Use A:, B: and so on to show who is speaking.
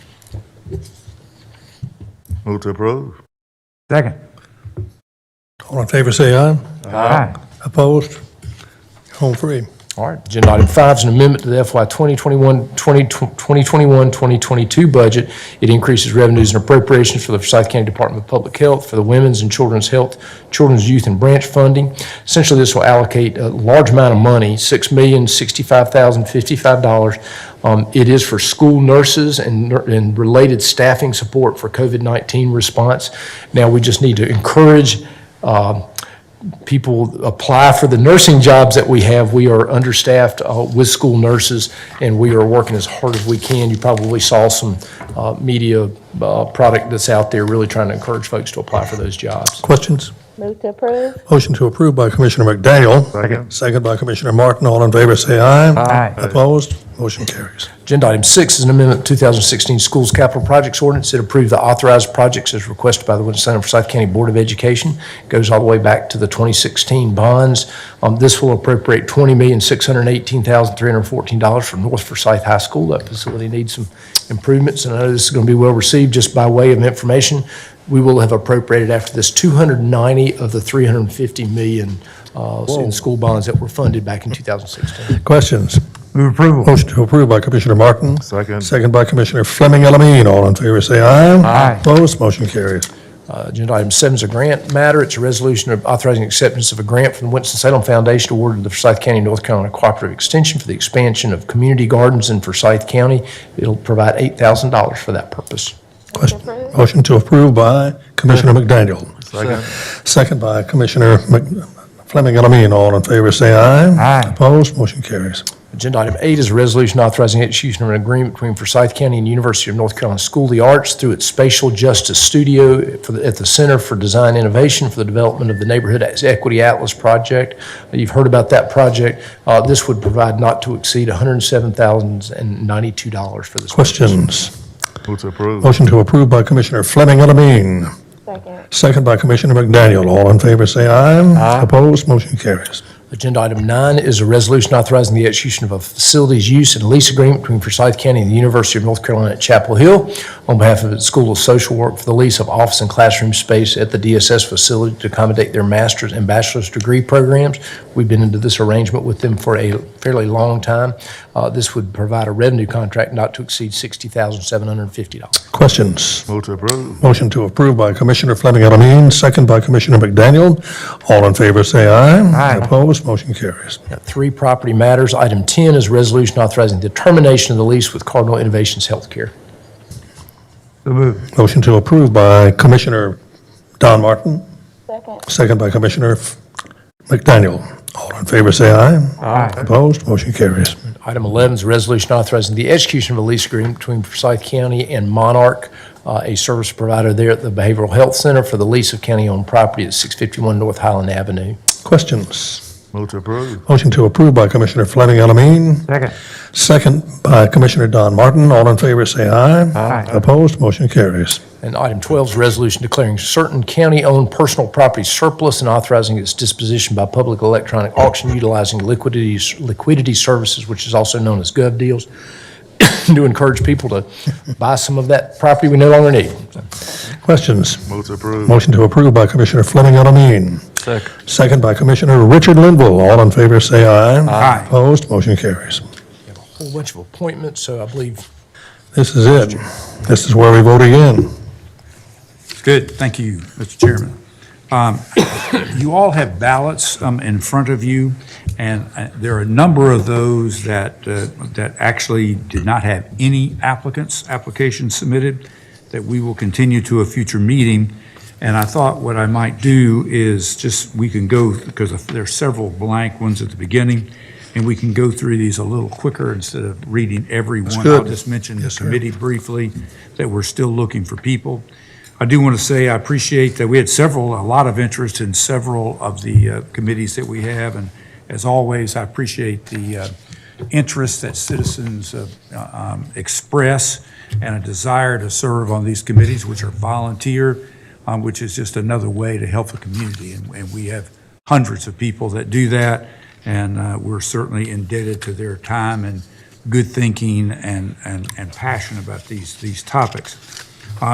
A: Move to approve.
B: Second.
C: All in favor, say aye.
B: Aye.
C: Opposed? Home free.
B: All right.
D: Agenda item five is an amendment to the FY 2021, 2022 budget. It increases revenues and appropriations for the Forsyth County Department of Public Health for the Women's and Children's Health, Children's Youth and Branch Funding. Essentially, this will allocate a large amount of money, $6,065,055. Um, It is for school nurses and nur- and related staffing support for COVID-19 response. Now, we just need to encourage um, people apply for the nursing jobs that we have. We are understaffed uh, with school nurses, and we are working as hard as we can. You probably saw some uh, media uh, product that's out there really trying to encourage folks to apply for those jobs.
C: Questions?
E: Move to approve.
C: Motion to approve by Commissioner McDaniel.
A: Second.
C: Second by Commissioner Martin. All in favor, say aye.
B: Aye.
C: Opposed? Motion carries.
D: Agenda item six is an amendment to 2016 Schools Capital Projects Ordinance that approved the authorized projects as requested by the Winston Center for South County Board of Education. Goes all the way back to the 2016 bonds. Um, This will appropriate $20,618,314 for North Forsyth High School. That facility needs some improvements, and I know this is going to be well received. Just by way of information, we will have appropriated after this 290 of the 350 million uh, in school bonds that were funded back in 2016.
C: Questions?
B: Move approval.
C: Motion to approve by Commissioner Martin.
A: Second.
C: Second by Commissioner Fleming Elamine. All in favor, say aye.
B: Aye.
C: Opposed? Motion carries.
D: Uh, Agenda item seven is a grant matter. It's a resolution of authorizing acceptance of a grant from the Winston-Salem Foundation awarded to the Forsyth County, North Carolina Cooperative Extension for the expansion of community gardens in Forsyth County. It'll provide $8,000 for that purpose.
C: Question- Motion to approve by Commissioner McDaniel.
A: Second.
C: Second by Commissioner Mc- Fleming Elamine. All in favor, say aye.
B: Aye.
C: Opposed? Motion carries.
D: Agenda item eight is a resolution authorizing execution of an agreement between Forsyth County and University of North Carolina School of the Arts through its Spatial Justice Studio for the- at the Center for Design Innovation for the development of the Neighborhood Equity Atlas Project. You've heard about that project. Uh, This would provide not to exceed $107,092 for this.
C: Questions?
A: Move to approve.
B: Oh.
C: Motion to approve by Commissioner Fleming Elamine.
E: Second.
C: Second by Commissioner McDaniel. All in favor, say aye. Opposed, motion carries.
D: Agenda item nine is a resolution authorizing the execution of a facilities use and lease agreement between Forsyth County and the University of North Carolina at Chapel Hill on behalf of its School of Social Work for the lease of office and classroom space at the DSS facility to accommodate their master's and bachelor's degree programs. We've been into this arrangement with them for a fairly long time. Uh, This would provide a revenue contract not to exceed $60,750.
C: Questions?
A: Move to approve.
C: Motion to approve by Commissioner Fleming Elamine, second by Commissioner McDaniel. All in favor, say aye.
B: Aye.
C: Opposed, motion carries.
D: Got Three property matters. Item 10 is a resolution authorizing the termination of the lease with Cardinal Innovations Healthcare.
B: So moved.
C: Motion to approve by Commissioner Don Martin,
E: Second.
C: second by Commissioner F- McDaniel. All in favor, say aye.
B: Aye.
C: Opposed, motion carries.
D: Item 11 is a resolution authorizing the execution of a lease agreement between Forsyth County and Monarch, uh, a service provider there at the Behavioral Health Center for the lease of county-owned property at 651 North Highland Avenue.
C: Questions?
A: Move to approve.
C: Motion to approve by Commissioner Fleming Elamine,
B: Second.
C: Second by Commissioner Don Martin. All in favor, say aye.
B: Aye.
C: Opposed, motion carries.
D: And item 12 is a resolution declaring certain county-owned personal property surplus and authorizing its disposition by public electronic auction utilizing liquidity liquidity services, which is also known as gov deals, to encourage people to buy some of that property we no longer need.
C: Questions?
A: Move to approve.
C: Motion to approve by Commissioner Fleming Elamine. Second. Second by Commissioner Richard Linville. All in favor, say aye.
B: Aye.
C: Opposed, motion carries.
D: Whole bunch of appointments, so I believe
C: This is it. This is where we vote again.
F: Good, thank you, Mr. Chairman. Um, You all have ballots um, in front of you, and uh, there are a number of those that, uh, that actually did not have any applicants, applications submitted, that we will continue to a future meeting. And I thought what I might do is just, we can go, because there are several blank ones at the beginning, and we can go through these a little quicker instead of reading every one. I'll
C: good.
F: just mention the
C: Yes, sir.
F: committee briefly, that we're still looking for people. I do want to say I appreciate that we had several, a lot of interest in several of the uh, committees that we have. And as always, I appreciate the uh, interest that citizens uh, um, express and a desire to serve on these committees, which are volunteer, um, which is just another way to help the community. And and we have hundreds of people that do that, and uh, we're certainly indebted to their time and good thinking and, and, and passion about these, these topics.